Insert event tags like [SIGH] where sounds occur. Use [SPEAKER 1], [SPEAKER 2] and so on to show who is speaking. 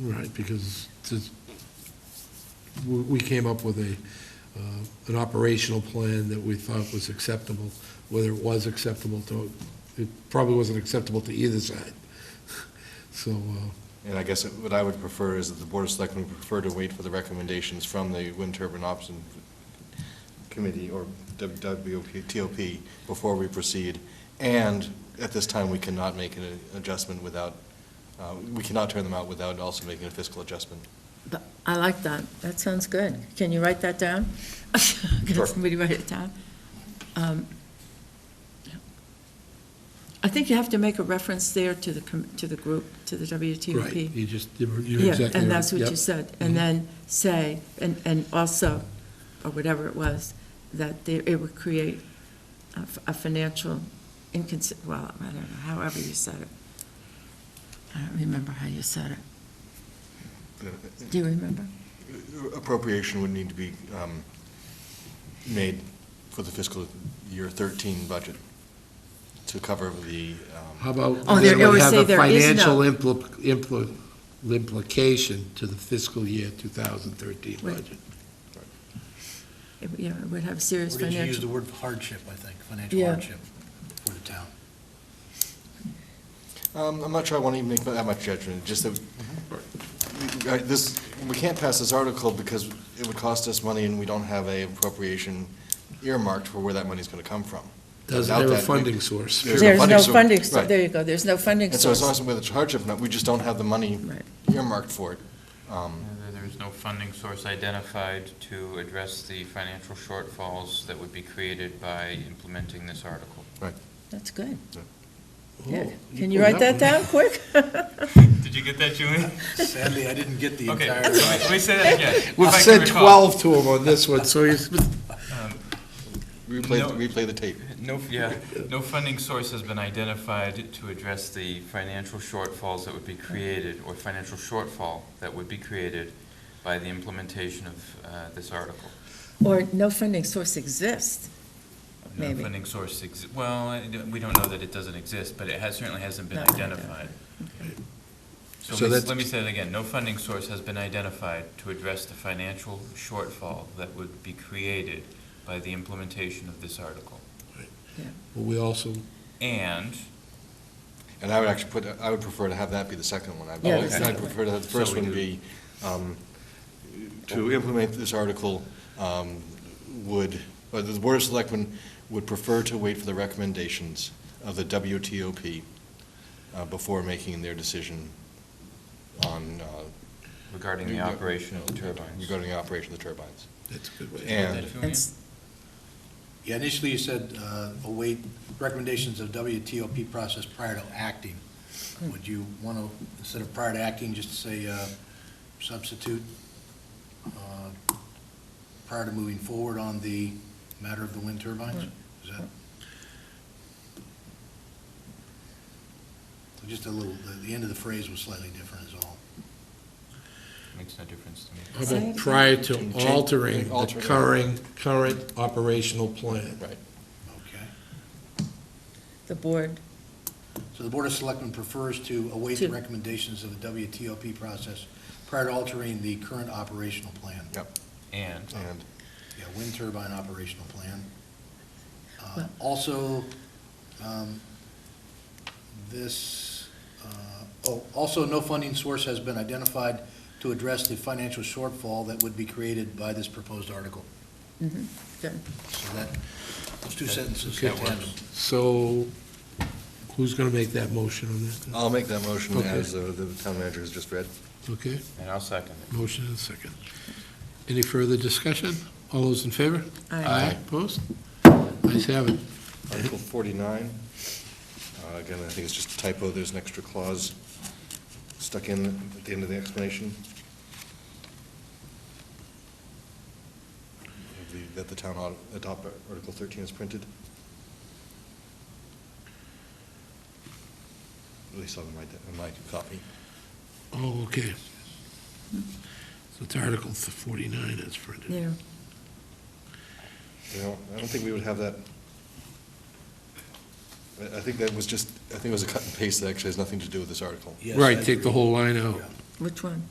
[SPEAKER 1] Right, because this- we we came up with a, uh, an operational plan that we thought was acceptable, whether it was acceptable to, it probably wasn't acceptable to either side. [LAUGHS] So, uh,
[SPEAKER 2] And I guess what I would prefer is that the Board of Selectmen prefer to wait for the recommendations from the Wind Turbine Option Committee or WWTOP before we proceed. And at this time, we cannot make an adjustment without, uh, we cannot turn them out without also making a fiscal adjustment.
[SPEAKER 3] But I like that. That sounds good. Can you write that down? [LAUGHS] Can
[SPEAKER 2] Sure.
[SPEAKER 3] somebody write it down? Um, I think you have to make a reference there to the, com- to the group, to the WTOP.
[SPEAKER 1] right, you just, you're you're
[SPEAKER 3] Yeah,
[SPEAKER 1] exactly right.
[SPEAKER 3] and that's what you
[SPEAKER 1] Yep. Mm-hmm.
[SPEAKER 3] said. And then say, and, and also, or whatever it was, that there- it would create a f- a financial incons, well, I don't know, however you said it. I don't remember how you said it. Do you remember?
[SPEAKER 2] Appropriation would need to be um, made for the fiscal year 13 budget to cover the, um,
[SPEAKER 1] How about,
[SPEAKER 3] Oh,
[SPEAKER 1] then
[SPEAKER 3] there-
[SPEAKER 1] we
[SPEAKER 3] it would
[SPEAKER 1] have
[SPEAKER 3] say
[SPEAKER 1] a
[SPEAKER 3] there is no-
[SPEAKER 1] financial impl- impl- implication to the fiscal year 2013
[SPEAKER 3] Wait.
[SPEAKER 1] budget.
[SPEAKER 3] It- Yeah, it would have serious
[SPEAKER 4] Or did you use the
[SPEAKER 3] financial.
[SPEAKER 4] word hardship, I think, financial
[SPEAKER 3] Yeah.
[SPEAKER 4] hardship for the town?
[SPEAKER 2] Um, I'm not sure I want to even make that much judgment, just that, we- we- this, we can't pass this article because it would cost us money and we don't have a appropriation earmarked for where that money's going to come from.
[SPEAKER 1] Doesn't
[SPEAKER 2] Without
[SPEAKER 1] have a
[SPEAKER 2] that, we-
[SPEAKER 1] funding source.
[SPEAKER 2] There's no funding source.
[SPEAKER 3] so-
[SPEAKER 2] Right.
[SPEAKER 3] There you go, there's no funding
[SPEAKER 2] And so it's
[SPEAKER 3] source.
[SPEAKER 2] also whether it's hardship or not, we just don't have the money
[SPEAKER 3] Right.
[SPEAKER 2] earmarked for it. Um,
[SPEAKER 5] And then There's no funding source identified to address the financial shortfalls that would be created by implementing this article.
[SPEAKER 3] That's good.
[SPEAKER 2] Yeah.
[SPEAKER 3] Yeah.
[SPEAKER 1] Oh,
[SPEAKER 3] Can you
[SPEAKER 1] pulled
[SPEAKER 3] write that
[SPEAKER 1] one.
[SPEAKER 3] down quick?
[SPEAKER 5] Did you get that, Julie?
[SPEAKER 4] Sadly, I didn't get
[SPEAKER 3] [LAUGHS]
[SPEAKER 4] the
[SPEAKER 5] Okay,
[SPEAKER 4] entire.
[SPEAKER 5] let me- let me say that again.
[SPEAKER 1] We've
[SPEAKER 5] If I can
[SPEAKER 1] said
[SPEAKER 5] recall.
[SPEAKER 1] 12 to him on this one, [LAUGHS] so he's,
[SPEAKER 2] Replay,
[SPEAKER 5] No.
[SPEAKER 2] replay the tape.
[SPEAKER 5] No, yeah, no funding source has been identified to address the financial shortfalls that would be created, or financial shortfall that would be created by the implementation of uh, this article.
[SPEAKER 3] Or no funding source exists. Maybe.
[SPEAKER 5] No funding source, exi- well, I don't- we don't know that it doesn't exist, but it has, certainly hasn't been
[SPEAKER 3] Not
[SPEAKER 5] identified.
[SPEAKER 1] So
[SPEAKER 5] So let me s-
[SPEAKER 1] that's-
[SPEAKER 5] let me say that again, no funding source has been identified to address the financial shortfall that would be created by the implementation of this article.
[SPEAKER 1] we also
[SPEAKER 5] And,
[SPEAKER 2] And I would actually put, I would prefer to have that be the second one. I
[SPEAKER 3] Yeah, the
[SPEAKER 2] would- I'd
[SPEAKER 3] second
[SPEAKER 2] prefer to have the
[SPEAKER 5] So
[SPEAKER 2] first
[SPEAKER 5] we
[SPEAKER 2] one
[SPEAKER 5] do-
[SPEAKER 2] be, um, to implement this article, um, would, or the Board of Selectmen would prefer to wait for the recommendations of the WTOP uh, before making their decision on. uh,
[SPEAKER 5] regarding the operation of the turbines.
[SPEAKER 2] Regarding the operation of the turbines.
[SPEAKER 1] That's a good way.
[SPEAKER 2] And,
[SPEAKER 5] Is that
[SPEAKER 3] And
[SPEAKER 5] Julian?
[SPEAKER 3] s-
[SPEAKER 4] Yeah, initially you said, uh, await recommendations of WTOP process prior to acting.
[SPEAKER 3] Hmm.
[SPEAKER 4] Would you want to, instead of prior to acting, just say uh, substitute, uh, prior to moving forward on the matter of the wind turbines?
[SPEAKER 3] Hmm.
[SPEAKER 4] Is that? So Just a little, the- the end of the phrase was slightly different is all.
[SPEAKER 5] Makes no difference to me.
[SPEAKER 1] How
[SPEAKER 3] Say it again.
[SPEAKER 1] about prior to
[SPEAKER 2] Change-
[SPEAKER 1] altering the
[SPEAKER 2] altering.
[SPEAKER 1] current, current operational plan?
[SPEAKER 2] right,
[SPEAKER 4] Okay.
[SPEAKER 3] The board,
[SPEAKER 4] So the Board of Selectmen prefers to await the
[SPEAKER 3] To-
[SPEAKER 4] recommendations of the WTOP process prior to altering the current operational plan.
[SPEAKER 5] And,
[SPEAKER 2] and,
[SPEAKER 4] Yeah, wind turbine operational plan. Uh,
[SPEAKER 3] Well-
[SPEAKER 4] Also, um, this, uh, oh, also, no funding source has been identified to address the financial shortfall that would be created by this proposed article.
[SPEAKER 3] mhm, good.
[SPEAKER 4] So that, those two sentences
[SPEAKER 1] Okay.
[SPEAKER 4] go tandem.
[SPEAKER 1] So who's going to make that motion on that?
[SPEAKER 2] I'll make that motion
[SPEAKER 1] Okay.
[SPEAKER 2] as uh, the town manager has just read.
[SPEAKER 1] Okay,
[SPEAKER 5] and I'll second it.
[SPEAKER 1] motion and second. Any further discussion? All those in favor?
[SPEAKER 3] Aye.
[SPEAKER 1] Opposed? Ayes have it.
[SPEAKER 2] Article 49, uh, again, I think it's just a typo, there's an extra clause stuck in at the end of the explanation. Of the- That the town ought to adopt Article 13 is printed. At least on my, on my copy.
[SPEAKER 1] Oh, okay. So it's Article 49 as printed.
[SPEAKER 3] Yeah,
[SPEAKER 2] You know, I don't think we would have that. I- I think that was just, I think it was a cut and paste that actually has nothing to do with this article.
[SPEAKER 4] Yes, I
[SPEAKER 1] Right, take the
[SPEAKER 4] agree.
[SPEAKER 1] whole line out.
[SPEAKER 4] Yeah.
[SPEAKER 3] Which one?